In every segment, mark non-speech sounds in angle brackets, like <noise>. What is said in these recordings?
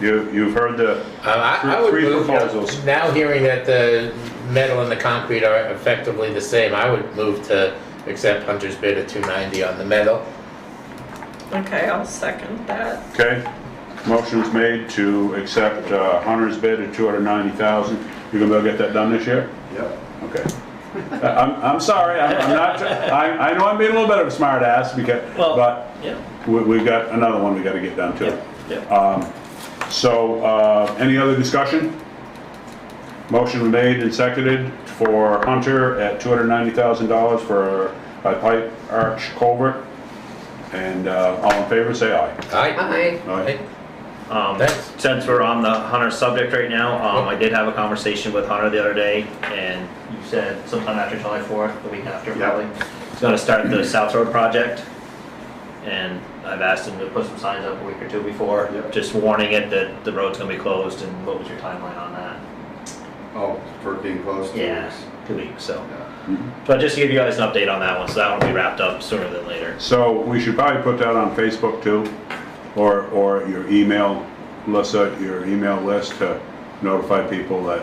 You, you've heard the Uh, I I three- would three move, you know, proposals. Now hearing that the metal and the concrete are effectively the same, I would move to accept Hunter's bid at 290 on the metal. Okay, I'll second that. Okay, motion's made to accept uh, Hunter's bid at 290,000. You gonna go get that done this year? Yep. Okay. I- I'm, I'm sorry, I'm I'm not, I, I know I'm being a little bit of a smart ass because, Well- but Yeah, we, we've got another one we gotta get done too. yeah, yeah. Um, So, uh, any other discussion? Motion made and seconded for Hunter at $290,000 for a pipe arch culvert. And uh, all in favor, say aye. Aye. Aye. Aye. Um, Thanks. since we're on the Hunter subject right now, um, I did have a conversation with Hunter the other day, and you said sometime after July fourth, the week after Yeah. probably, he's gonna start the South Road project. And I've asked him to put some signs up a week or two before, Yeah. just warning it that the road's gonna be closed, and what was your timeline on that? Oh, for being close to us. Two weeks, so, Yeah. but just to give you guys an update on that one, so that one will be wrapped up sooner than later. So we should probably put that on Facebook too, or, or your email, Melissa, your email list to notify people that,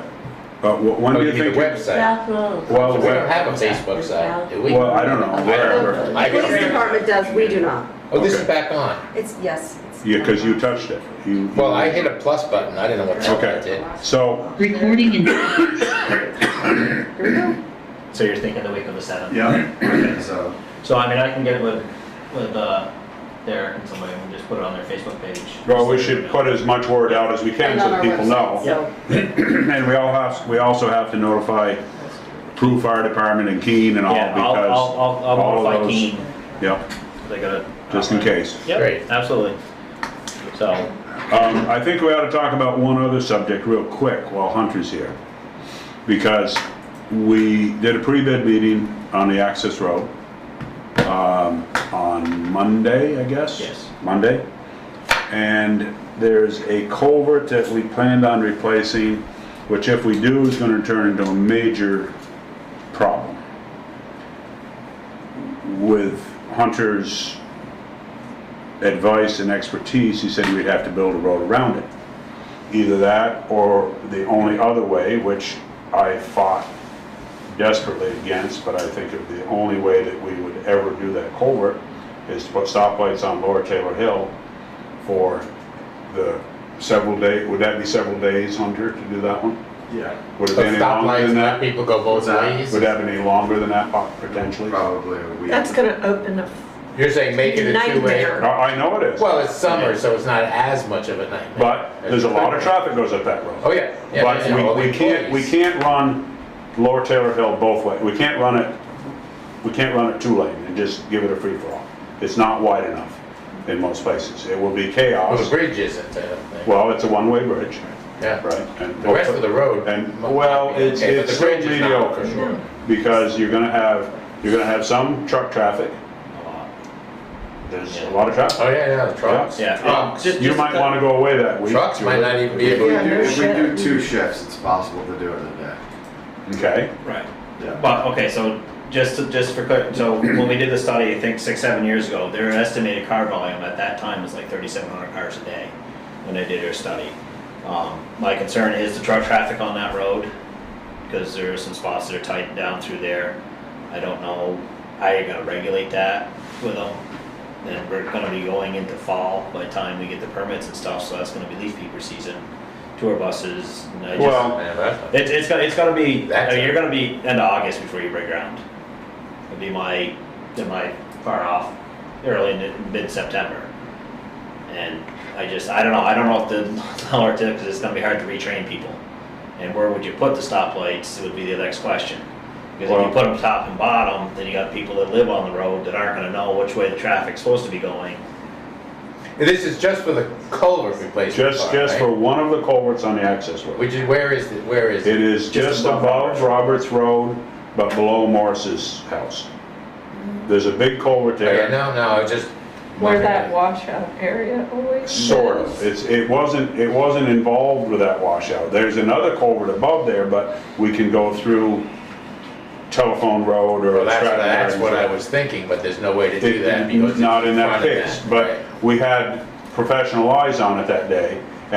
uh, wh- when Oh, do you you mean think? the website? South Road. Well, We don't where- have a Facebook site, do we? well, I don't know, wherever. I The don't police think- department does, we do not. Oh, this is Okay. back on. It's, yes. it's- Yeah, because you touched it. You- Well, I hit a plus button, I didn't know what the hell that Okay. did. So, Recording in So you're thinking the week of the seventh? Yeah, <coughs> so, So I mean, I can get it with, with, uh, Derek and somebody, and just put it on their Facebook page. well, we should put as much word out as we can And so on that our people know. website, so- <clears throat> And we all have, we also have to notify Prue Fire Department and Keene and all Yeah, I'll, because, I'll, all I'll, I'll of notify those- Keen, yep, they gotta. just in case. Great. Yep, absolutely. So, Um, I think we ought to talk about one other subject real quick while Hunter's here. Because we did a pre-bid meeting on the access road, um, on Monday, I guess? Yes. Monday. And there's a culvert that we planned on replacing, which if we do is gonna turn into a major problem. With Hunter's advice and expertise, he said we'd have to build a road around it. Either that or the only other way, which I fought desperately against, but I think it- the only way that we would ever do that culvert is to put stoplights on Lower Taylor Hill for the several day, would that be several days, Hunter, to do that one? yeah, Would it So be any stop longer lights, than let that? people go both What's that? ways? Would that be any longer than that po- potentially? I, probably a week. That's gonna open a You're saying make it a two-way? Nightmare. I know it is, Well, it's summer, so it's not as much of a nightmare. but there's a lot of traffic goes up that road. Oh, yeah. yeah, But yeah, all the we, we can't, we employees. can't run Lower Taylor Hill both ways. We can't run it, we can't run it two lane and just give it a free for all. It's not wide enough in most places. It will be Well, the chaos. bridge isn't, I don't think. Well, it's a one-way bridge, Yeah. right? and- The rest of the road. And, well, it's, Okay, but it's the still bridge is not, mediocre. for sure. Because you're gonna have, you're gonna have some truck traffic. uh, There's a lot of traffic. Oh, yeah, yeah, the trucks. yeah. Trucks. Just- You just- might wanna go away that week. Trucks might not even be If able we to. Yeah, do, no if we do shit. two shifts, it's possible to do it in a day. Okay, Right. Yeah. But, okay, so just, to- just for quick, so when we did the study, I think six, seven years ago, their estimated car volume at that time was like thirty-seven hundred cars a day when they did their study. Um, my concern is the truck traffic on that road, because there are some spots that are tight down through there. I don't know how you're gonna regulate that with them. Then we're gonna be going into fall by the time we get the permits and stuff, so that's gonna be leaf peeper season, tour buses, and I just. Well, Man, that's- It's, it's gonna, it's gonna be, I That's- mean, you're gonna be end of August before you break ground. It'd be my, then my far off, early mid- mid-September. And I just, I don't know, I don't know if the, <laughs> how our tip, cause it's gonna be hard to retrain people. And where would you put the stoplights would be the next question. Because if Well- you put them top and bottom, then you got people that live on the road that aren't gonna know which way the traffic's supposed to be going. This is just for the culvert replacement. just, part, just right? for one of the culverts on the access road. Which is, where is, it? where is It it? is just above Roberts Road, but below Morris's house. There's a big culvert Okay, there, Oh, no, no, I just. where wondering. that washout area always is. sort of. It's, it wasn't, it wasn't involved with that washout. There's another culvert above there, but we can go through Telephone Road or. Well, that's, Stratton that's what I Road. was thinking, but there's no way to do that because. It- it's Not in that front of case, that, but right. we had professional eyes on it that day,